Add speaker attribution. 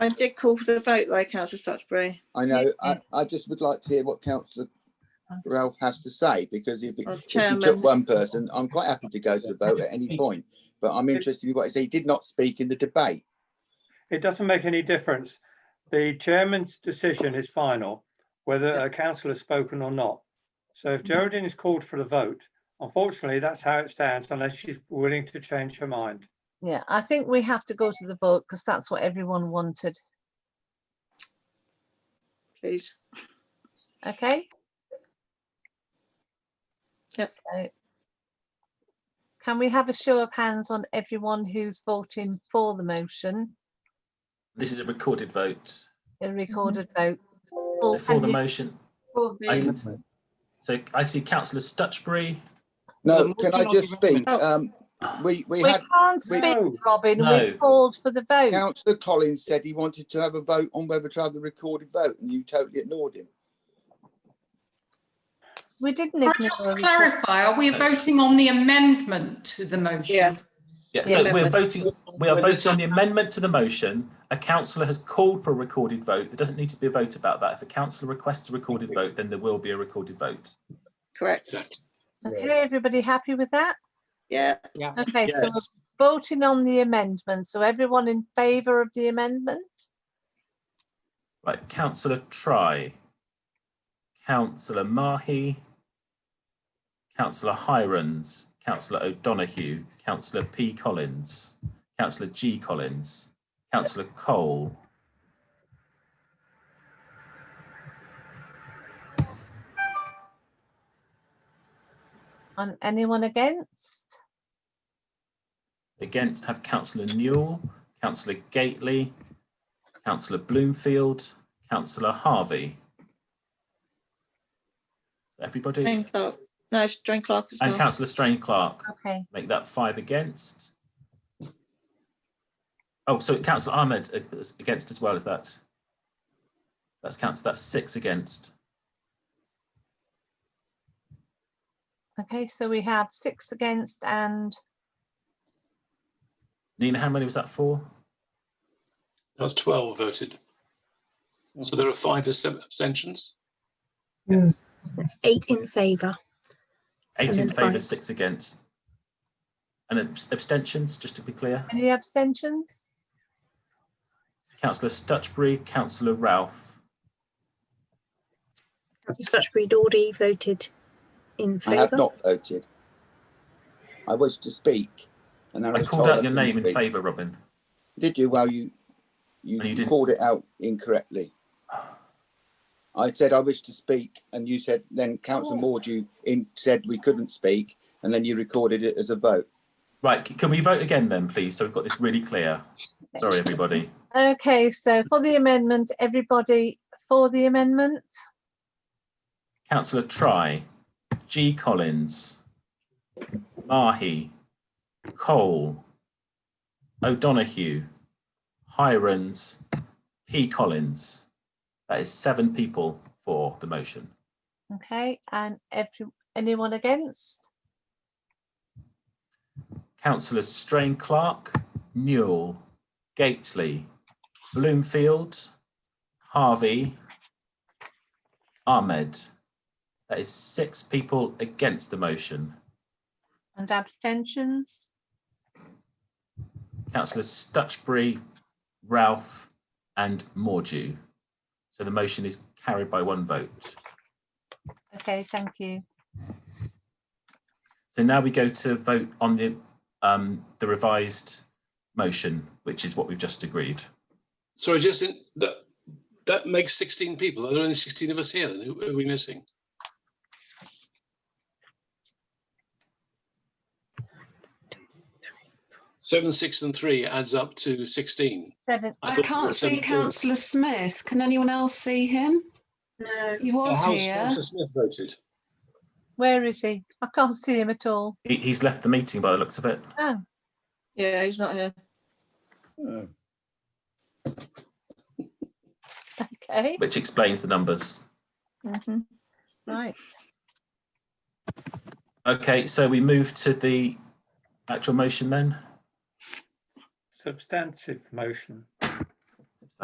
Speaker 1: I did call for the vote though, councillor Stutchbury.
Speaker 2: I know, I, I just would like to hear what councillor Ralph has to say, because if it-
Speaker 1: Or
Speaker 2: if you took
Speaker 1: chairman's.
Speaker 2: one person, I'm quite happy to go to the vote at any point. But I'm interested in what he said. He did not speak in the debate.
Speaker 3: It doesn't make any difference. The chairman's decision is final, whether a councillor has spoken or not. So if Geraldine is called for the vote, unfortunately, that's how it stands unless she's willing to change her mind.
Speaker 4: Yeah, I think we have to go to the vote because that's what everyone wanted.
Speaker 1: Please.
Speaker 4: Okay?
Speaker 1: Yep.
Speaker 4: So, Can we have a show of hands on everyone who's voting for the motion,
Speaker 5: This is a recorded vote.
Speaker 4: a recorded vote? Paul,
Speaker 5: So For
Speaker 4: can
Speaker 5: the
Speaker 4: Oh, you-
Speaker 5: motion,
Speaker 1: Call
Speaker 5: I
Speaker 1: the-
Speaker 5: can, so I see councillor Stutchbury.
Speaker 2: No, can I just speak?
Speaker 1: Oh.
Speaker 2: Um, we, we
Speaker 4: We
Speaker 2: had,
Speaker 4: can't
Speaker 2: we-
Speaker 4: speak,
Speaker 3: No.
Speaker 4: Robin,
Speaker 5: No.
Speaker 4: we've called for the vote.
Speaker 2: councillor Collins said he wanted to have a vote on whether to have the recorded vote and you totally ignored him.
Speaker 4: We didn't.
Speaker 6: Can I
Speaker 4: ignore
Speaker 6: just
Speaker 4: the-
Speaker 6: clarify, are we voting on the amendment to the motion?
Speaker 1: Yeah.
Speaker 5: Yeah,
Speaker 1: Yeah.
Speaker 5: so we're voting, we are voting on the amendment to the motion. A councillor has called for a recorded vote. There doesn't need to be a vote about that. If a councillor requests a recorded vote, then there will be a recorded vote.
Speaker 1: Correct.
Speaker 4: Okay, everybody happy with that?
Speaker 1: Yeah,
Speaker 4: Okay, so we're voting on the amendment. So everyone in favour of the amendment?
Speaker 5: Right, councillor Try, councillor Mahi, councillor Hirons, councillor O'Donoghue, councillor P Collins, councillor G Collins, councillor Cole.
Speaker 4: And anyone against?
Speaker 5: Against have councillor Newell, councillor Gately, councillor Bloomfield, councillor Harvey. Everybody?
Speaker 1: Jane Clark. No, it's Jane Clark as
Speaker 5: And
Speaker 1: well.
Speaker 5: councillor Strain Clark.
Speaker 4: Okay,
Speaker 5: Make that five against. Oh, so councillor Ahmed uh, is against as well, is that? That's counts, that's six against.
Speaker 4: okay, so we have six against and,
Speaker 5: Nina, how many was that for?
Speaker 7: That's 12 voted. So there are five abst- abstentions.
Speaker 8: That's eight in favour.
Speaker 5: Eight
Speaker 8: And
Speaker 5: in
Speaker 8: then
Speaker 5: favour,
Speaker 8: five.
Speaker 5: six against. And then abs- abstentions, just to be clear.
Speaker 4: any abstentions?
Speaker 5: Councillor Stutchbury, councillor Ralph.
Speaker 8: Councillor Stutchbury Dawdy voted in
Speaker 2: I have
Speaker 8: favour.
Speaker 2: not voted. I was to speak and I
Speaker 5: I
Speaker 2: was
Speaker 5: called
Speaker 2: told. I
Speaker 5: out your
Speaker 2: couldn't
Speaker 5: name in
Speaker 2: speak.
Speaker 5: favour, Robin.
Speaker 2: Did you? Well, you,
Speaker 5: And you
Speaker 2: you
Speaker 5: didn't.
Speaker 2: called it out incorrectly. I said I wish to speak and you said, then councillor Mordew in, said we couldn't speak and then you recorded it as a vote.
Speaker 5: Right, c- can we vote again then, please? So we've got this really clear. Sorry, everybody.
Speaker 4: Okay, so for the amendment, everybody for the amendment?
Speaker 5: Councillor Try, G Collins, Mahi, Cole, O'Donoghue, Hirons, P Collins. That is seven people for the motion.
Speaker 4: Okay, and every, anyone against?
Speaker 5: Councillors Strain Clark, Newell, Gatesley, Bloomfield, Harvey, Ahmed. That is six people against the motion.
Speaker 4: And abstentions?
Speaker 5: Councillors Stutchbury, Ralph, and Mordew. So the motion is carried by one vote.
Speaker 4: Okay, thank you.
Speaker 5: So now we go to vote on the um, the revised motion, which is what we've just agreed.
Speaker 7: Sorry, just in, that that makes 16 people. Are there only 16 of us here? Then who who are we missing? Seven, six, and three adds up to 16.
Speaker 4: Seven,
Speaker 7: I
Speaker 9: I
Speaker 7: thought there were
Speaker 9: can't see
Speaker 7: 17.
Speaker 9: councillor Smith. Can anyone else see him?
Speaker 8: No,
Speaker 9: He
Speaker 7: Well,
Speaker 9: was
Speaker 7: how's
Speaker 9: here.
Speaker 7: Councillor Smith voted?
Speaker 4: where is he? I can't see him at all.
Speaker 5: He, he's left the meeting by the looks of it.
Speaker 4: Oh,
Speaker 1: Yeah, he's not here.
Speaker 4: okay,
Speaker 5: which explains the numbers.
Speaker 1: Mhm.
Speaker 4: right.
Speaker 5: Okay, so we move to the actual motion then.
Speaker 3: Substantive motion.